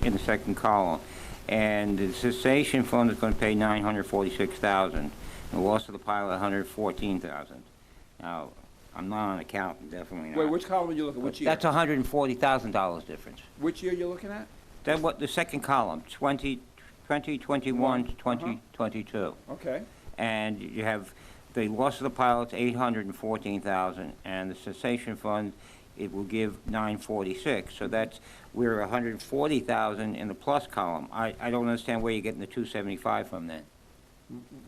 in the second column. And the cessation fund is going to pay 946000 The loss of the pilot, 114000 Now, I'm not an accountant, definitely not. Wait, which column are you looking, But which year? That's $140,000 difference. Which year you're looking at? Then what, the second column, 20, 2021 Uh-huh. to 2022. Okay, And you have the loss of the pilots, 814,000, and the cessation fund, it will give 946. So that's, we're 140,000 in the plus column. I, I don't understand where you're getting the 275 from then.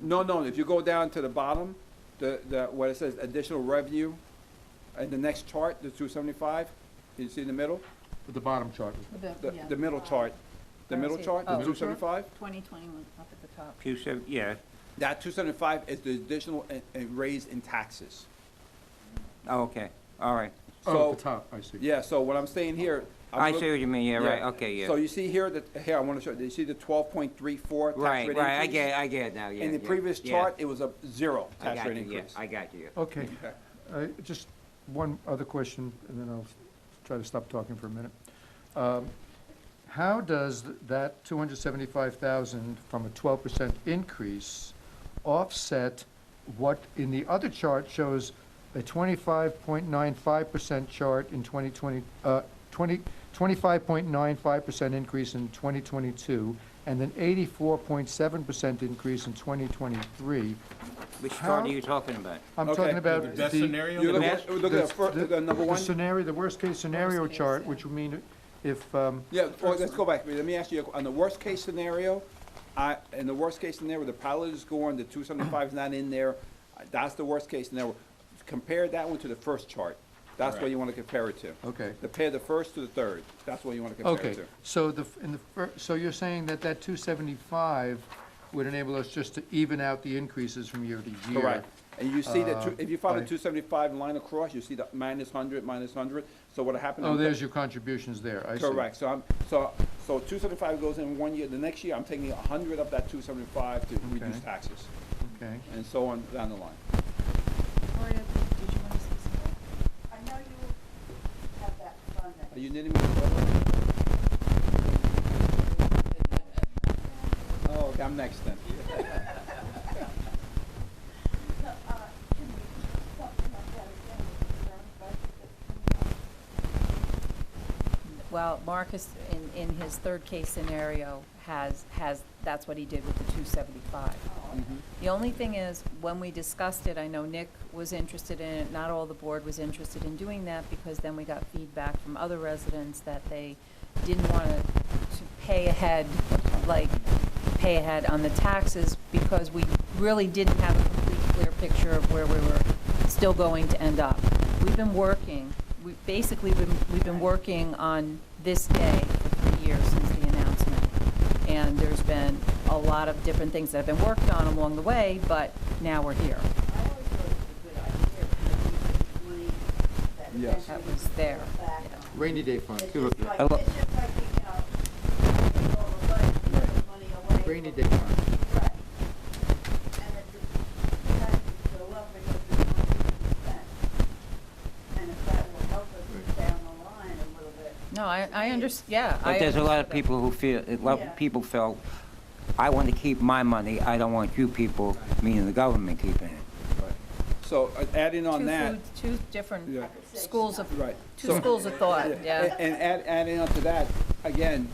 no, no, if you go down to the bottom, the, the, what it says additional revenue, in the next chart, the two seventy-five, you see in the middle? The bottom chart. The, the middle chart, the I don't middle see it. chart, the Oh, two sure. seventy-five? 2021, up at the top. 270, yeah, That two seventy-five is the additional and, and raise in taxes. oh, okay, all right. Oh, at So- the top, I see. Yeah, so what I'm saying here. I'm I look- see what you mean, yeah, right, okay, So yeah. you see here that, here, I wanna show, you see the twelve point three four tax rate Right, right, I increase? get, I get it now, yeah. In the yeah, previous yeah. chart, it was a zero I tax got rate you, yeah, increase. I got you, yeah. Okay, Okay. I- just one other question, and then I'll s- try to stop talking for a minute. Um, How does th- that 275,000 from a 12% increase offset what in the other chart shows a 25.95% chart in 2020, uh, 20, 25.95% increase in 2022, and an 84.7% increase in 2023? Which chart How- are you talking about? I'm Okay. talking about the... That scenario? You look The at, best- look at the fir- the number the one. scenario, the worst-case scenario Worst-case, chart, yeah. which would mean if, um, Yeah, well, let's go back. Let me ask you, on the worst case scenario, I, in the worst case scenario, the pilot is going, the two seventy-five's not in there. uh, That's the worst case scenario. Compare that one to the first chart. That's what you wanna compare it to. Okay. Compare the first to the third. That's what you wanna compare it okay, to. so the, f- in the, fir- so you're saying that that 275 would enable us just to even out the increases from year to year? Correct. And you see that, two- Uh, if you follow by- the two seventy-five line across, you see the minus hundred, minus hundred. So what happened? Oh, in the- there's your contributions there, I see. Correct, so I'm, so, so two seventy-five goes in one year, the next year, I'm taking a hundred of that two seventy-five to reduce Okay. taxes, Okay. and so on down the line. Gloria, did you want to say something? I know you have that fund that Are you knitting me? a sweater? Oh, okay, I'm next then. No, uh, can we do something like that again with the current budget that's coming up? Well, Marcus, in, in his third case scenario, has, has, that's what he did with the 275. The only thing is, when we discussed it, I know Nick was interested in it, not all the board was interested in doing that, because then we got feedback from other residents that they didn't want to pay ahead, like, pay ahead on the taxes, because we really didn't have a complete clear picture of where we were still going to end up. We've been working, we've basically been, we've been working on this day for three years since the announcement and there's been a lot of different things that have been worked on along the way, but now we're here. I always thought it was a good idea because you could money that Yes. That eventually you was could there, fall back yeah. on. Rainy day fund. It's just like, I lo- it's just like, you know, all the money, you put money away. Rainy for- day fund. Right. And it just, you have to go up because it's money to be spent. And if that will help us down the line a little bit. No, I, I under, yeah. I But there's a lot understand of that. people who feel, a lot Yeah. of people felt, I want to keep my money, I don't want you people, meaning the government, keeping it. So uh, adding on Two that, food- Two different Yeah. schools of, right. two So- schools of thought, And, yeah. and add, adding on to that, again,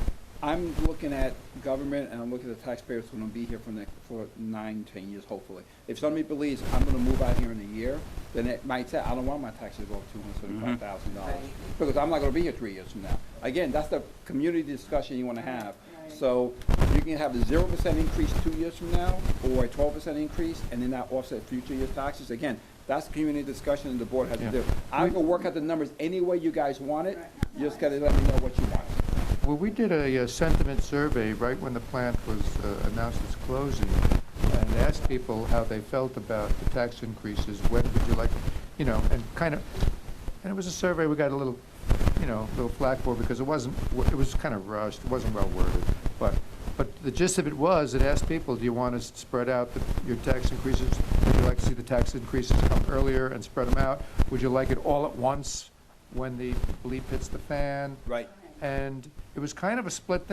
I'm looking at government and I'm looking at the taxpayers who're gonna be here for next, for nine, ten years, hopefully. If somebody believes I'm gonna move out here in a year, then it might say, I don't want my taxes to go up two hundred seventy-five thousand dollars. Because I'm not gonna be here three years from now. Again, that's the community discussion you wanna have. So you can have a zero percent increase two years from now, or a twelve percent increase, and then that offset future year taxes. Again, that's community discussion and the board has to Yeah. do. I can work out the numbers any way you guys want it, you just gotta let me know what you want. Well, we did a uh, sentiment survey right when the plant was uh, announced its closing, and asked people how they felt about the tax increases, when would you like, you know, and kind of, and it was a survey we got a little, you know, a little flack for, because it wasn't, it was kind of rushed, it wasn't well worded, but, but the gist of it was, it asked people, do you want us to spread out the- your tax increases? Would you like to see the tax increases come earlier and spread them out? Would you like it all at once when the bleep hits the fan? Right. and it was kind of a split thing.